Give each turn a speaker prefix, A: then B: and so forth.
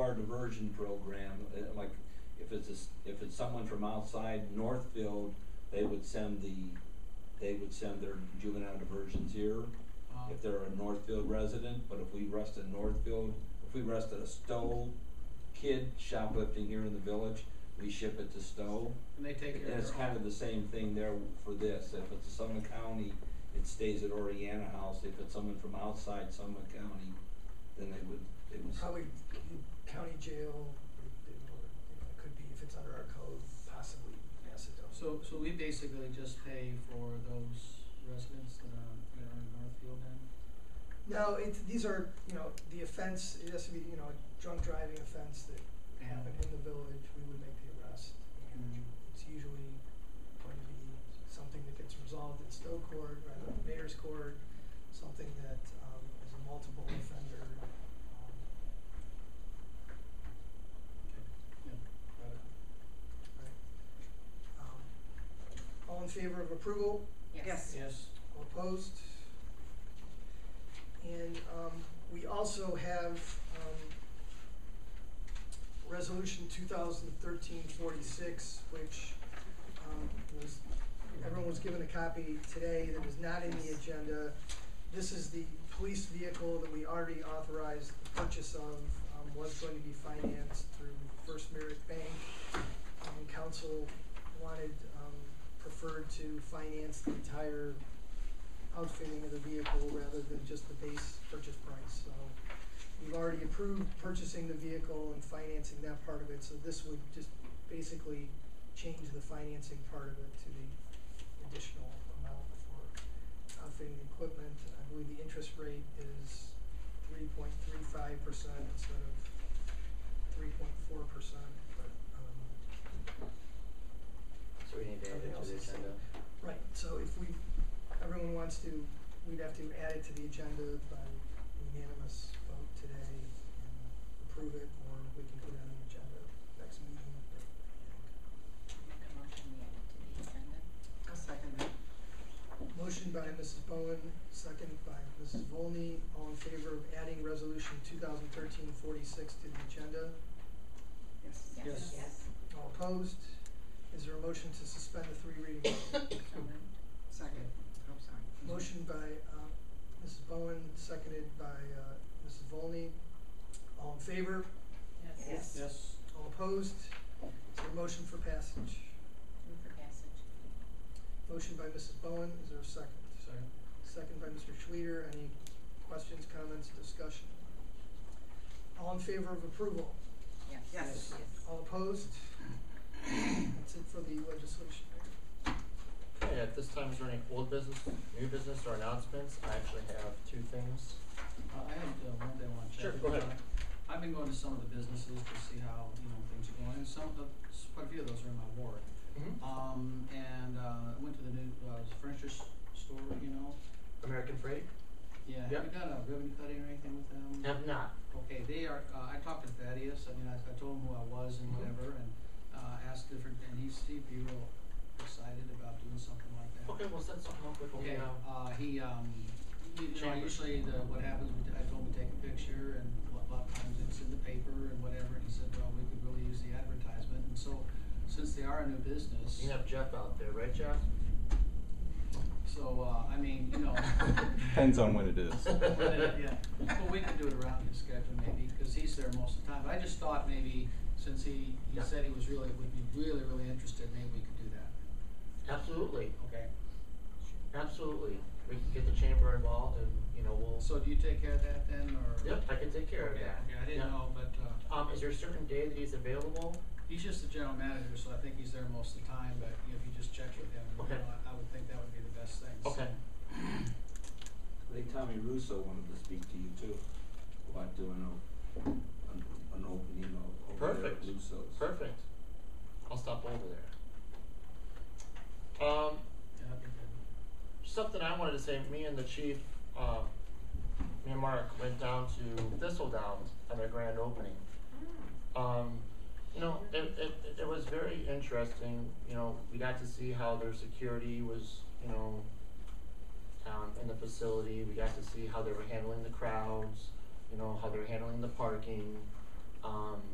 A: our diversion program, uh, like, if it's, a s- if it's someone from outside Northfield, they would send the, they would send their juvenile diversions here,
B: Uh,
A: if they're a Northfield resident, but if we arrested Northfield, if we arrested a Stowe kid shoplifting here in the village, we ship it to Stowe.
B: And they take care of
A: And it's
B: their
A: kind
B: own.
A: of the same thing there for this, if it's Summit County, it stays at Oriana House, if it's someone from outside Summit County, then they would, they would.
C: Probably in county jail, or, or, you know, it could be, if it's under our code, possibly Macedonia.
B: So, so we basically just pay for those residents that are, that are in Northfield then?
C: No, it's, these are, you know, the offense, it has to be, you know, a drunk driving offense that happened in the village, we would make the arrest. And
B: Mhm.
C: it's usually going to be something that gets resolved in Stowe Court, rather than Mayor's Court, something that, um, is a multiple offender, um,
B: Yeah, got it.
C: right? Um, All in favor of approval?
D: Yes.
B: Yes,
C: All opposed? And um, we also have um, Resolution 2013-46, which um, was, everyone was given a copy today that was not in the agenda. This is the police vehicle that we already authorized the purchase of, um, was going to be financed through First Merit Bank. And council wanted, um, preferred to finance the entire outfitting of the vehicle rather than just the base purchase price. So we've already approved purchasing the vehicle and financing that part of it, so this would just basically change the financing part of it to the additional amount for outfitting the equipment. I believe the interest rate is three point three five percent instead of three point four percent, but, um,
E: So we need to add
C: Everything
E: it
C: else
E: to the
C: is the
E: agenda.
C: Right, so if we, everyone wants to, we'd have to add it to the agenda by unanimous vote today and approve it, or we can put it on the agenda next meeting.
D: Make a motion we add it to the agenda.
F: I'll second that.
C: Motion by Mrs. Bowen, second by Mrs. Volney, all in favor of adding resolution 2013-46 to the agenda?
F: Yes.
B: Yes.
D: Yes.
C: All opposed? Is there a motion to suspend the three reading rule?
D: So moved.
F: Second. I'm sorry.
C: Motion by uh, Mrs. Bowen, seconded by uh, Mrs. Volney. All in favor?
D: Yes.
B: yes,
C: All opposed? Is there a motion for passage?
D: Move for passage.
C: Motion by Mrs. Bowen, is there a second?
B: second,
C: Second by Mr. Schleter, any questions, comments, discussion? All in favor of approval?
D: Yes.
F: Yes.
C: All opposed? That's it for the legislation.
E: Okay, at this time, is there any old business, new business, or announcements? I actually have two things.
B: Uh, I had, uh, one thing I wanna check.
E: Sure, go
B: with,
E: ahead.
B: uh, I've been going to some of the businesses to see how, you know, things are going, and some of the, s- quite a few of those are in my ward.
E: Uh,
B: Um, and, uh, I went to the new, uh, furniture s- store, you know,
E: American Freight?
B: yeah, have you
E: Yep.
B: done a ribbon cutting or anything with them?
E: Have not.
B: Okay, they are, uh, I talked to Thaddeus, I mean, I, I told him who I was and
E: Mhm.
B: whatever, and, uh, asked different, and he's, he'd be real excited about doing something like that.
E: Okay, we'll set something up with
B: Okay,
E: him now.
B: uh, he, um, you you know,
E: Chamber.
B: usually the, what happens, we t- I told him to take a picture and a lot- lot of times it's in the paper and whatever, and he said, well, we could really use the advertisement, and so, since they are a new business,
E: You have Jeff out there, right, Jeff?
B: so, uh, I mean, you know.
G: Depends on when it is.
B: Yeah, but we could do it around his schedule maybe, cause he's there most of the time, but I just thought maybe, since he, he
E: Yeah.
B: said he was really, would be really, really interested, maybe we could do that,
E: Absolutely,
B: okay?
E: absolutely. We can get the chamber involved and, you know, we'll,
B: So do you take care of that then, or?
E: yep, I can take care of
B: Okay,
E: that.
B: Okay, I
E: Yep.
B: didn't know, but, uh.
E: Um, is there a certain day that he's available?
B: He's just the general manager, so I think he's there most of the time, but you know, if you just check with him, you
E: Okay.
B: know, I I would think that would be the best thing, so.
E: Okay.
A: I think Tommy Russo wanted to speak to you too, about doing a, an, an opening o- over there at
E: Perfect.
A: Russo's.
E: Perfect. I'll stop over there. Um,
B: Yeah, that'd be good.
E: something I wanted to say, me and the chief, uh, me and Mark went down to Thistledown at their grand opening. Um, you know, it, it, it was very interesting, you know, we got to see how their security was, you know, um, in the facility, we got to see how they were handling the crowds, you know, how they were handling the parking, um,